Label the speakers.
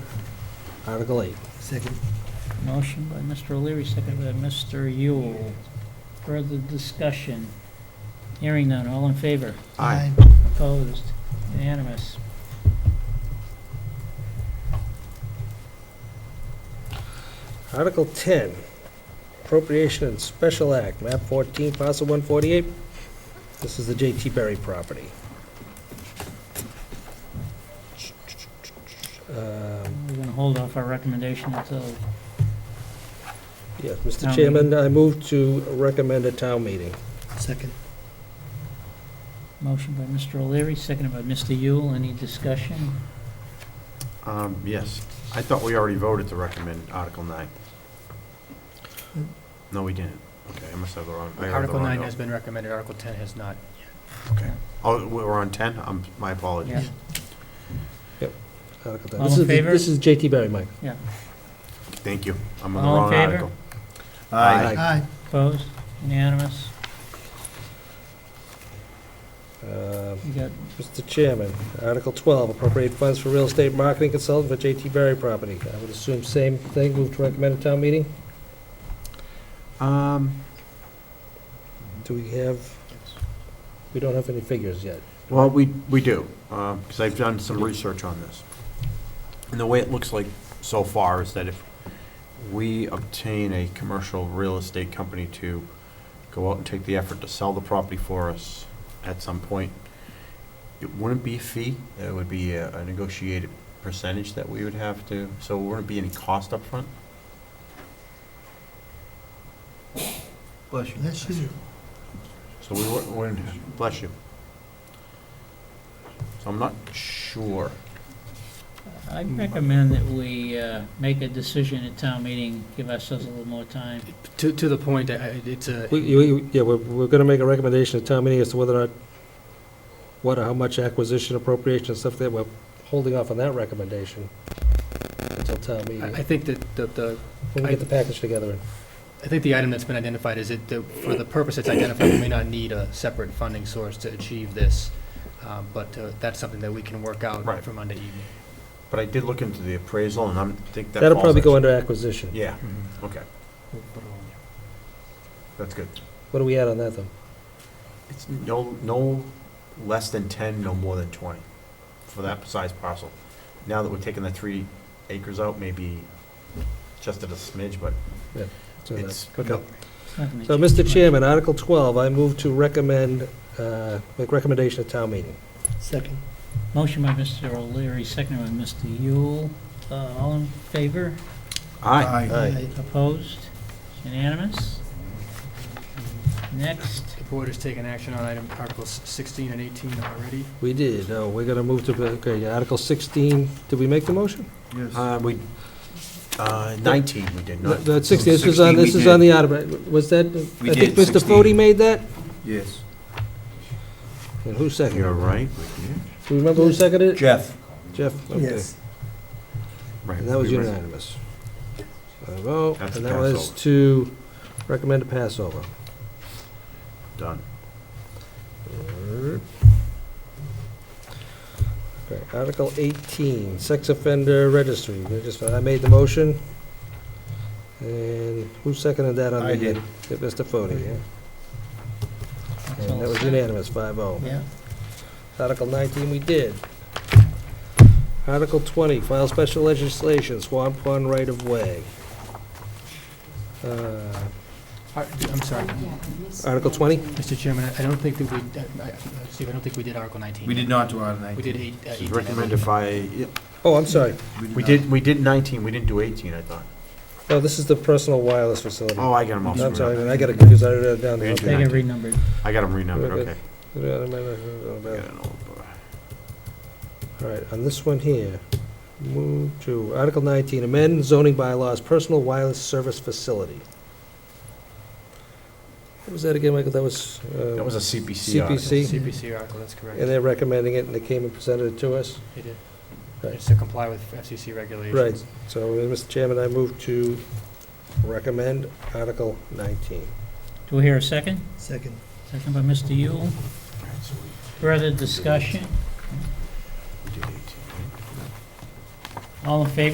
Speaker 1: Article 8.
Speaker 2: Second.
Speaker 3: Motion by Mr. O'Leary, second by Mr. Yule. Further discussion? Hearing none, all in favor?
Speaker 2: Aye.
Speaker 3: Opposed? Unanimous.
Speaker 1: Article 10, appropriation and special act, map 14, parcel 148. This is the J.T. Berry property. Um,
Speaker 3: We're going to hold off our recommendation until,
Speaker 1: Yes, Mr.
Speaker 3: Town meeting.
Speaker 1: Chairman, I move to recommend a town meeting.
Speaker 2: Second.
Speaker 3: motion by Mr. O'Leary, seconded by Mr. Yule. Any discussion?
Speaker 4: Um, Yes. I thought we already voted to recommend Article 9. No, we didn't. Okay, I must have the wrong, I have the
Speaker 5: Article
Speaker 4: wrong
Speaker 5: nine
Speaker 4: note.
Speaker 5: has been recommended, Article ten has not.
Speaker 4: Okay. Oh, we're on 10? Um, My
Speaker 3: Yeah.
Speaker 4: apologies.
Speaker 1: Article 10.
Speaker 3: All
Speaker 1: This
Speaker 3: in
Speaker 1: is the-
Speaker 3: favor?
Speaker 1: This is J.T. Berry, Mike.
Speaker 4: Thank you. I'm on the
Speaker 3: All in
Speaker 4: wrong
Speaker 3: favor?
Speaker 4: article.
Speaker 1: Aye.
Speaker 2: Aye.
Speaker 3: Opposed? Unanimous.
Speaker 1: Uh,
Speaker 3: You got
Speaker 1: Mr. Chairman, Article 12, appropriate funds for real estate marketing consultant for J.T. Berry property. I would assume same thing, move to recommend a town meeting?
Speaker 4: Um,
Speaker 1: Do we have, we don't have any figures yet.
Speaker 4: Well, we, we do, because I've done some research on this. And the way it looks like so far is that if we obtain a commercial real estate company to go out and take the effort to sell the property for us at some point, it wouldn't be a fee, it would be a a negotiated percentage that we would have to, so it wouldn't be any cost up front.
Speaker 5: Bless you.
Speaker 2: Bless you.
Speaker 4: So we wou- wouldn't, bless you. So I'm not sure.
Speaker 3: I recommend that we uh, make a decision at town meeting, give ourselves a little more time.
Speaker 5: To, to the point, I- I- it's a,
Speaker 1: We- you- you- Yeah, we're, we're going to make a recommendation at town meeting as to whether or not, what or how much acquisition appropriation and stuff that we're holding off on that recommendation until town
Speaker 5: I I
Speaker 1: meeting.
Speaker 5: think that the- the,
Speaker 1: When we get the package together.
Speaker 5: I think the item that's been identified is it, that for the purpose it's identified, we may not need a separate funding source to achieve this, um, but uh, that's something that we can work out
Speaker 4: Right.
Speaker 5: for Monday evening.
Speaker 4: But I did look into the appraisal, and I'm, think that
Speaker 1: That'll
Speaker 4: falls
Speaker 1: probably go
Speaker 4: actually-
Speaker 1: under acquisition.
Speaker 4: Yeah,
Speaker 5: Mm-hmm.
Speaker 4: okay, that's good.
Speaker 1: What do we add on that, though?
Speaker 4: It's no, no less than ten, no more than twenty for that size parcel. Now that we're taking the three acres out, maybe just at a smidge, but
Speaker 1: So that-
Speaker 4: it's,
Speaker 1: okay.
Speaker 3: It's not gonna
Speaker 1: So,
Speaker 3: change
Speaker 1: Mr.
Speaker 3: much.
Speaker 1: Chairman, Article 12, I move to recommend, uh, make recommendation at town meeting.
Speaker 2: Second.
Speaker 3: Motion by Mr. O'Leary, seconded by Mr. Yule. Uh, All in favor?
Speaker 4: aye,
Speaker 1: Aye.
Speaker 3: Opposed? Unanimous? Next,
Speaker 5: The board has taken action on item Articles sixteen and eighteen already.
Speaker 1: We did, oh, we're going to move to, okay, Article 16, did we make the motion?
Speaker 4: uh, we, uh, nineteen we did
Speaker 1: No,
Speaker 4: not.
Speaker 1: That's 16, this is on, this is on the article, was that, I think Mr. Fode made that?
Speaker 6: Yes.
Speaker 1: And who seconded
Speaker 4: You're
Speaker 1: it?
Speaker 4: right, we did.
Speaker 1: Do you remember who seconded it?
Speaker 6: Jeff?
Speaker 1: Jeff, okay.
Speaker 4: Right,
Speaker 1: And that was
Speaker 4: we were-
Speaker 1: unanimous. Five oh,
Speaker 4: That's
Speaker 1: and that was
Speaker 4: Passover.
Speaker 1: to recommend a Passover.
Speaker 4: Done.
Speaker 1: Okay, Article 18, sex offender registry. We just- I made the motion. And who seconded that on the?
Speaker 6: I did.
Speaker 1: Yeah, Mr. Fode, yeah.
Speaker 3: that's
Speaker 1: And
Speaker 3: all
Speaker 1: that was
Speaker 3: set.
Speaker 1: unanimous, 5-0.
Speaker 3: Yeah,
Speaker 1: Article 19, we did. Article 20, file special legislation, Swan Pond right-of-way. Uh,
Speaker 5: Ar- I'm sorry,
Speaker 1: Article 20?
Speaker 5: Mr. Chairman, I- I don't think that we, uh, I- I- Steve, I don't think we did Article nineteen.
Speaker 6: We did not do Article
Speaker 5: We
Speaker 6: 19.
Speaker 5: did eight- uh,
Speaker 4: This
Speaker 5: eighteen. I
Speaker 4: is
Speaker 5: believe.
Speaker 4: recommended by, yeah,
Speaker 1: Oh, I'm sorry.
Speaker 4: we
Speaker 6: not.
Speaker 4: did, we did nineteen, we didn't do eighteen, I thought.
Speaker 1: No, this is the personal wireless facility.
Speaker 4: Oh, I got them all
Speaker 1: I'm sorry,
Speaker 4: screwed up.
Speaker 1: man, I got it confused, I wrote it down.
Speaker 4: Thank you.
Speaker 3: they got renumbered.
Speaker 4: I got them renumbered, okay. I
Speaker 1: All
Speaker 4: got an old book.
Speaker 1: right, on this one here, move to Article 19, amend zoning bylaws, personal wireless service facility. What was that again, Michael? That was, uh,
Speaker 4: That was a CPC audit.
Speaker 1: CPC.
Speaker 5: CPC article, that's correct.
Speaker 1: and they're recommending it, and they came and presented it to us.
Speaker 5: They did.
Speaker 1: Right.
Speaker 5: It's to comply with FCC regulations.
Speaker 1: Right. So, uh, Mr. Chairman, I move to recommend Article 19.
Speaker 3: Do we hear a second?
Speaker 2: Second.
Speaker 3: Second by Mr. Yule. Further discussion?
Speaker 4: We did eighteen.
Speaker 3: All in favor?